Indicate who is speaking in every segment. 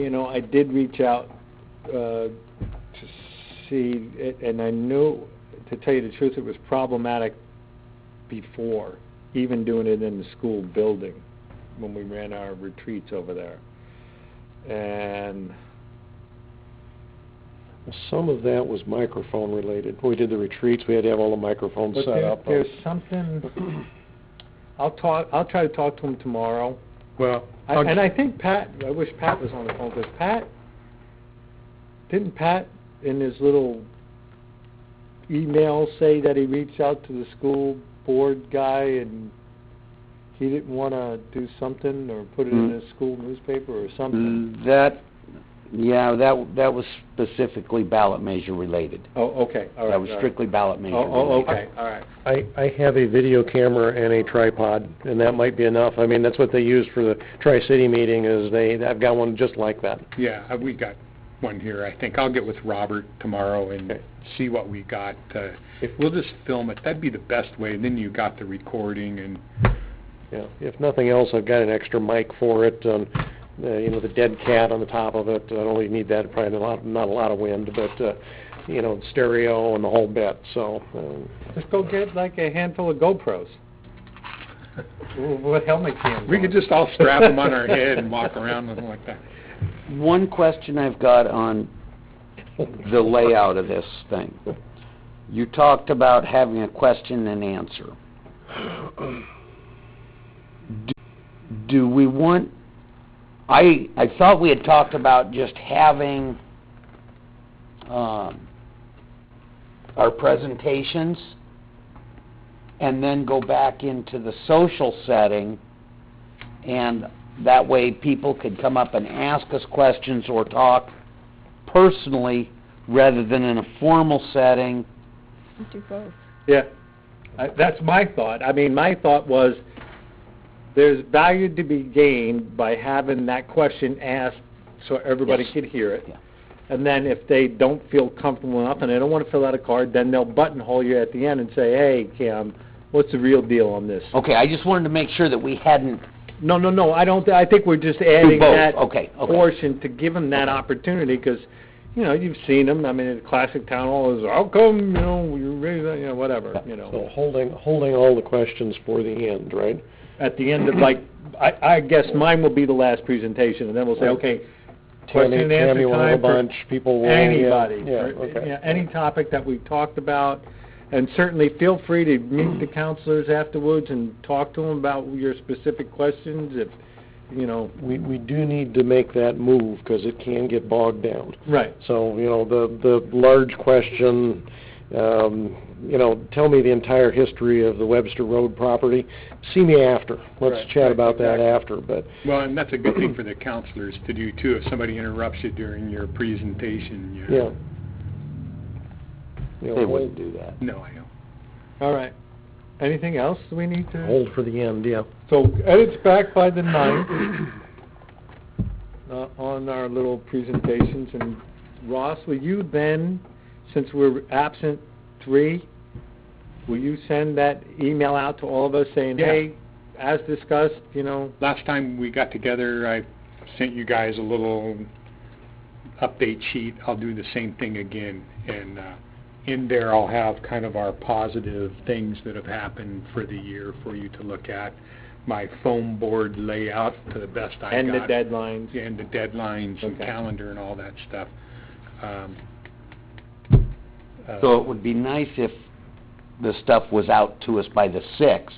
Speaker 1: You know, I did reach out uh, to see, and I knew, to tell you the truth, it was problematic before, even doing it in the school building when we ran our retreats over there. And
Speaker 2: Well, Some of that was microphone related. When we did the retreats, we had to have all the microphones
Speaker 1: But
Speaker 2: set
Speaker 1: there-
Speaker 2: up.
Speaker 1: There's something, I'll talk, I'll try to talk to him tomorrow.
Speaker 2: Well,
Speaker 1: I- And I think Pat, I wish Pat was on the phone, because Pat, didn't Pat in his little email say that he reached out to the school board guy and he didn't want to do something or put it in
Speaker 3: Hmm.
Speaker 4: Mm-hmm.
Speaker 1: a school newspaper or something?
Speaker 3: Mm, That, yeah, that, that was specifically ballot measure related.
Speaker 4: Mm-hmm.
Speaker 1: Oh, okay, all right.
Speaker 3: That was
Speaker 1: all right.
Speaker 3: strictly ballot measure
Speaker 1: Oh, oh,
Speaker 3: related.
Speaker 1: okay, all right.
Speaker 2: I, I have a video camera and a tripod, and that might be enough. I mean, that's what they used for the Tri-City meeting is they, I've got one just like that.
Speaker 4: Yeah, uh, we got one here, I think. I'll get with Robert tomorrow and
Speaker 2: Okay.
Speaker 4: see what we got. Uh
Speaker 2: If-
Speaker 4: We'll just film it. That'd be the best way. Then you got the recording and,
Speaker 2: Yeah, if nothing else, I've got an extra mic for it, um, uh, you know, the dead cat on the top of it. I don't really need that, probably not a lot, not a lot of wind, but, uh, you know, stereo and the whole bit, so, um,
Speaker 1: Just go get like a handful of GoPros. What helmet cams
Speaker 4: we
Speaker 1: on.
Speaker 4: could just all strap them on our head and walk around with 'em like that.
Speaker 3: One question I've got on the layout of this thing. You talked about having a question and answer. Do- Do we want, I, I thought we had talked about just having, um, our presentations and then go back into the social setting and that way people could come up and ask us questions or talk personally rather than in a formal setting.
Speaker 5: Do both.
Speaker 1: Yeah, I- that's my thought. I mean, my thought was, there's value to be gained by having that question asked so everybody
Speaker 3: Yes.
Speaker 1: could hear it.
Speaker 3: Yeah.
Speaker 1: And then if they don't feel comfortable enough and they don't want to fill out a card, then they'll buttonhole you at the end and say, hey, Cam, what's the real deal on this?
Speaker 3: Okay, I just wanted to make sure that we hadn't,
Speaker 1: No, no, no, I don't, I think we're just adding
Speaker 3: both.
Speaker 1: that
Speaker 3: Okay, okay.
Speaker 1: portion to give them that opportunity, because, you know, you've seen them, I mean, in classic town hall is, how come, you know, you raise, that," you know, whatever, you know.
Speaker 2: so holding, holding all the questions for the end, right?
Speaker 1: at the end of like, I, I guess mine will be the last presentation, and then we'll say, okay, question
Speaker 2: Tammy-
Speaker 1: and answer
Speaker 2: Tammy will have a
Speaker 1: time for
Speaker 2: bunch, people will, yeah,
Speaker 1: anybody.
Speaker 2: yeah,
Speaker 1: for-
Speaker 2: okay.
Speaker 1: yeah, Any topic that we talked about, and certainly feel free to meet the counselors afterwards and talk to them about your specific questions if, you know.
Speaker 2: We, we do need to make that move, because it can get bogged down.
Speaker 1: Right.
Speaker 2: So, you know, the, the large question, um, you know, tell me the entire history of the Webster Road property. See me after.
Speaker 4: Right,
Speaker 2: Let's chat
Speaker 4: right,
Speaker 2: about that
Speaker 4: exactly.
Speaker 2: after, but,
Speaker 4: Well, and that's a good thing for the counselors to do too, if somebody interrupts you during your presentation, you
Speaker 2: yeah.
Speaker 4: know.
Speaker 2: You know,
Speaker 3: they
Speaker 2: hold-
Speaker 3: wouldn't do that.
Speaker 4: No, I know.
Speaker 1: All right. Anything else we need to?
Speaker 2: Hold for the end, yeah.
Speaker 1: So edits back by the ninth uh, on our little presentations. And Ross, will you then, since we're absent three, will you send that email out to all of us saying,
Speaker 4: Yeah.
Speaker 1: hey, as discussed, you know,
Speaker 4: Last time we got together, I sent you guys a little update sheet. I'll do the same thing again. And uh, in there, I'll have kind of our positive things that have happened for the year for you to look at. My foam board layout to the best I got.
Speaker 1: end the deadlines?
Speaker 4: And the deadlines and
Speaker 1: Okay.
Speaker 4: calendar and all that stuff. Um, uh,
Speaker 3: So it would be nice if the stuff was out to us by the sixth,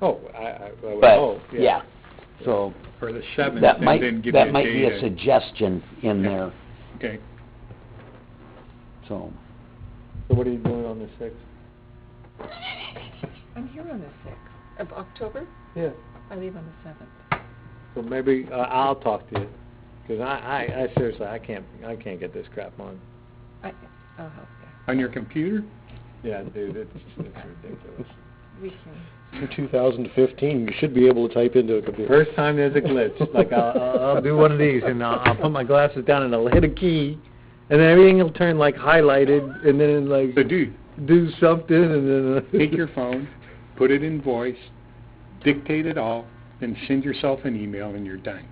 Speaker 1: Oh, I, I, I would
Speaker 3: but,
Speaker 1: hope,
Speaker 3: yeah. So
Speaker 4: Or the seventh,
Speaker 3: that
Speaker 4: oh,
Speaker 3: might,
Speaker 4: and then give you a
Speaker 3: that might be
Speaker 4: date.
Speaker 3: a suggestion in
Speaker 4: Yeah.
Speaker 3: there,
Speaker 4: Okay.
Speaker 3: so.
Speaker 1: So what are you doing on the sixth?
Speaker 5: I'm here on the sixth of October.
Speaker 1: Yeah.
Speaker 5: I leave on the seventh.
Speaker 1: So maybe uh, I'll talk to you, because I, I, I seriously, I can't, I can't get this crap on.
Speaker 5: I, I'll help you.
Speaker 4: On your computer?
Speaker 1: Yeah, dude, it's, it's ridiculous.
Speaker 5: We can,
Speaker 2: In 2015, you should be able to type into a computer.
Speaker 1: First time there's a glitch, like I'll, I'll- I'll do one of these and I'll, I'll put my glasses down and I'll hit a key, and then everything will turn like highlighted, and then
Speaker 4: So
Speaker 1: like
Speaker 4: dude,
Speaker 1: do something, and then. uh,
Speaker 4: take your phone, put it in voice, dictate it all, then send yourself an email and you're done.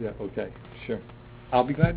Speaker 1: Yeah, okay, sure.
Speaker 4: I'll be glad to